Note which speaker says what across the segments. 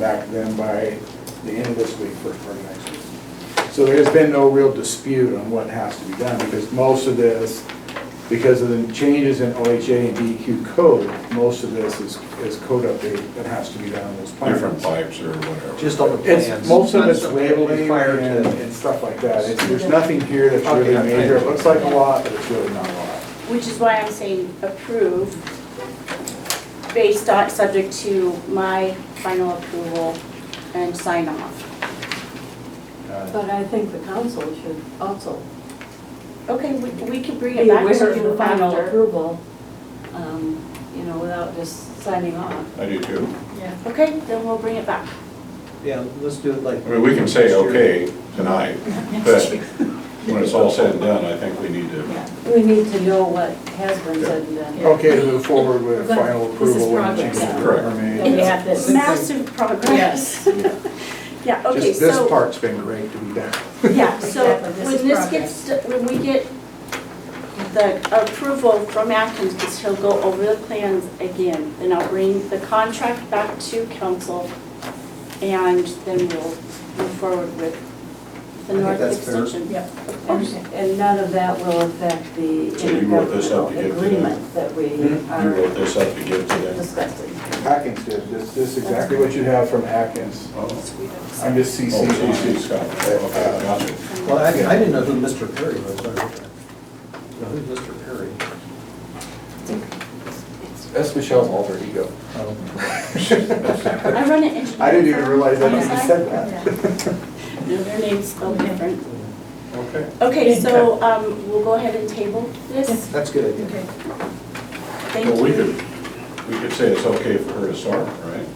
Speaker 1: back to them by the end of this week, first part of next week. So there's been no real dispute on what has to be done, because most of this, because of the changes in OHA and DEQ code, most of this is, is code update that has to be done on those plans.
Speaker 2: different pipes or whatever.
Speaker 3: Just on the
Speaker 1: It's,
Speaker 3: plans.
Speaker 1: most of it's
Speaker 3: Not something that
Speaker 1: labeling
Speaker 3: required to-
Speaker 1: and, and stuff like that. It's, there's nothing here that's really
Speaker 3: Okay.
Speaker 1: major. It looks like a lot, but it's really not a lot.
Speaker 4: Which is why I'm saying approve, based on, subject to my final approval and sign off.
Speaker 1: Uh,
Speaker 5: But I think the council should also
Speaker 4: Okay, we, we can bring
Speaker 5: be
Speaker 4: it back
Speaker 5: aware
Speaker 4: to
Speaker 5: of the
Speaker 4: you
Speaker 5: final
Speaker 4: after.
Speaker 5: approval, um, you know, without just signing off.
Speaker 2: I do too.
Speaker 4: Okay, then we'll bring it back.
Speaker 3: Yeah, let's do it like.
Speaker 2: I mean, we can say okay tonight, but when it's all said and done, I think we need to,
Speaker 5: We need to know what has been said and done.
Speaker 1: Okay, to move forward with
Speaker 6: But
Speaker 1: final
Speaker 6: this is
Speaker 1: approval when
Speaker 6: progress.
Speaker 1: changes
Speaker 2: Correct.
Speaker 1: are
Speaker 6: And we
Speaker 1: made.
Speaker 6: have this.
Speaker 4: Massive progress. Yeah, okay,
Speaker 1: Just this
Speaker 4: so,
Speaker 1: part's been great to be done.
Speaker 4: yeah, so
Speaker 6: Exactly, this is
Speaker 4: when this
Speaker 6: progress.
Speaker 4: gets, to- when we get the approval from Atkins, because he'll go over the plans again, then I'll bring the contract back to council, and then we'll move forward with the
Speaker 3: I think
Speaker 4: north
Speaker 3: that's fair.
Speaker 4: extension.
Speaker 6: Yep.
Speaker 5: And and none of that will affect the
Speaker 2: So you wrote this up to
Speaker 5: intergovernmental
Speaker 2: give to them?
Speaker 5: agreement that we
Speaker 2: Hmm? you wrote
Speaker 5: are
Speaker 2: this up to give to them.
Speaker 5: discussing.
Speaker 1: Atkins did, this, this is exactly what you have from Atkins.
Speaker 2: Oh,
Speaker 1: I'm just
Speaker 2: oh, CC
Speaker 1: CCing.
Speaker 2: Scott, okay, gotcha.
Speaker 3: Well, I, I didn't know who Mr. Perry was. I heard that. Now, Who's Mr. Perry?
Speaker 7: That's Michelle's alter ego.
Speaker 3: Oh,
Speaker 4: I run an engineering.
Speaker 1: I didn't even
Speaker 4: firm
Speaker 1: realize that
Speaker 4: on the
Speaker 1: you
Speaker 4: side.
Speaker 1: said that.
Speaker 4: No, their name's spelled different.
Speaker 2: Okay.
Speaker 4: Okay, so, um, we'll go ahead and table this.
Speaker 3: That's a good idea.
Speaker 4: Thank you.
Speaker 2: Well, we could, we could say it's okay for her to start, right?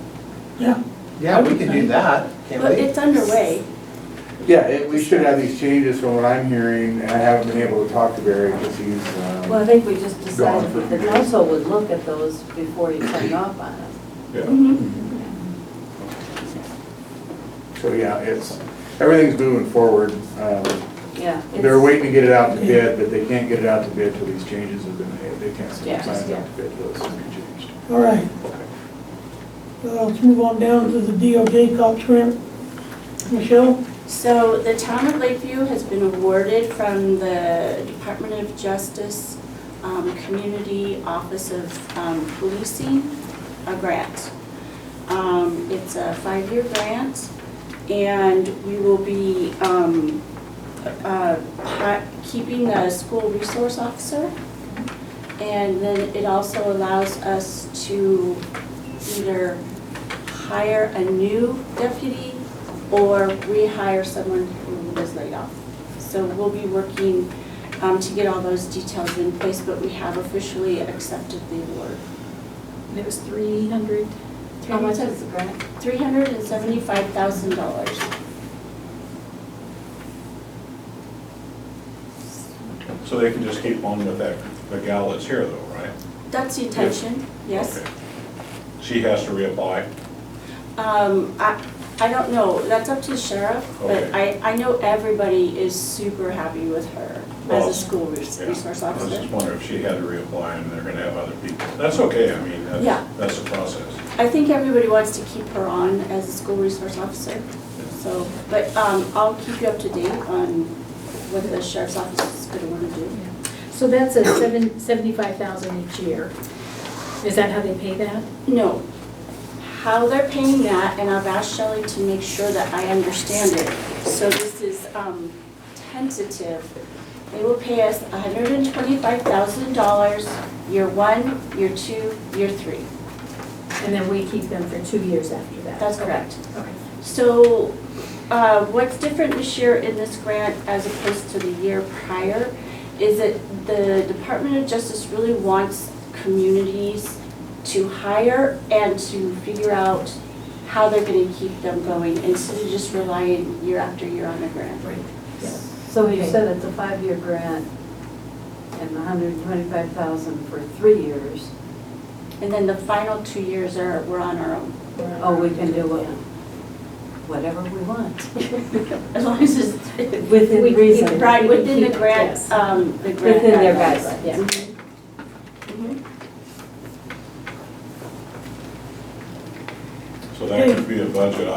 Speaker 3: Yeah, we can do that, can't
Speaker 4: But
Speaker 3: we?
Speaker 4: it's underway.
Speaker 1: Yeah, it- we should have these changes from what I'm hearing, and I haven't been able to talk to Barry because he's, um.
Speaker 5: Well, I think we just
Speaker 1: Gone
Speaker 5: decided
Speaker 1: for-
Speaker 5: that the council would look at those before you sign off on it.
Speaker 2: Yeah.
Speaker 4: Mhm.
Speaker 1: So, yeah, it's, everything's moving forward. Um,
Speaker 5: Yeah.
Speaker 1: They're
Speaker 5: it's-
Speaker 1: waiting to get it out to bid, but they can't get it out to bid till these changes have been made. They can't send the
Speaker 5: Yeah.
Speaker 1: plans out to bid till it's been changed.
Speaker 8: All right. Uh, Let's move on down to the DOJ cop trim. Michelle?
Speaker 4: So the town of Lakeview has been awarded from the Department of Justice, um, Community Office of, um, Policing, a grant. Um, it's a five-year grant, and we will be, um, uh, hi- keeping a school resource officer. And then it also allows us to either hire a new deputy or rehire someone who was laid off. So we'll be working um, to get all those details in place, but we have officially accepted the award.
Speaker 6: And It was three hundred.
Speaker 5: How much is the grant?
Speaker 4: Three hundred and seventy-five thousand dollars.
Speaker 2: So they can just keep on with that, the gal that's here though, right?
Speaker 4: That's the intention, yes.
Speaker 2: Okay. She has to reapply.
Speaker 4: Um, I, I don't know, that's up to the sheriff, but I,
Speaker 2: Okay.
Speaker 4: I know everybody is super happy with her as
Speaker 2: Well,
Speaker 4: a school res-
Speaker 2: Yeah.
Speaker 4: resource
Speaker 2: I was just
Speaker 4: officer.
Speaker 2: wondering if she had to reapply and they're gonna have other people. That's okay, I mean,
Speaker 4: Yeah.
Speaker 2: that's, that's the process.
Speaker 4: I think everybody wants to keep her on as a school resource officer, so, but, um, I'll keep you up to date on what the sheriff's office is gonna wanna do.
Speaker 6: So that's a seven, seventy-five thousand each year. Is that how they pay that?
Speaker 4: No. How they're paying that, and I've asked Shelley to make sure that I understand it. So this is um, tentative. They will pay us $125,000 year one, year two, year three.
Speaker 6: And then we keep them for two years after that?
Speaker 4: That's correct.
Speaker 6: Okay.
Speaker 4: So uh, what's different this year in this grant as opposed to the year prior is that the Department of Justice really wants communities to hire and to figure out how they're going to keep them going instead of just relying year after year on a grant.
Speaker 6: Right.
Speaker 5: So you said it's a five-year grant and hundred and twenty-five thousand for three years.
Speaker 4: And then the final two years are, we're on our own,
Speaker 5: Oh, we can do what- whatever we want,
Speaker 4: as long as it's
Speaker 6: We-
Speaker 5: within
Speaker 6: we-
Speaker 5: reason,
Speaker 6: right.
Speaker 4: right within the grant,
Speaker 6: Yes.
Speaker 4: um, the grant
Speaker 5: within their
Speaker 4: guidelines.
Speaker 5: guidelines.
Speaker 6: Yeah.
Speaker 4: Mhm.
Speaker 2: So that could be be a budget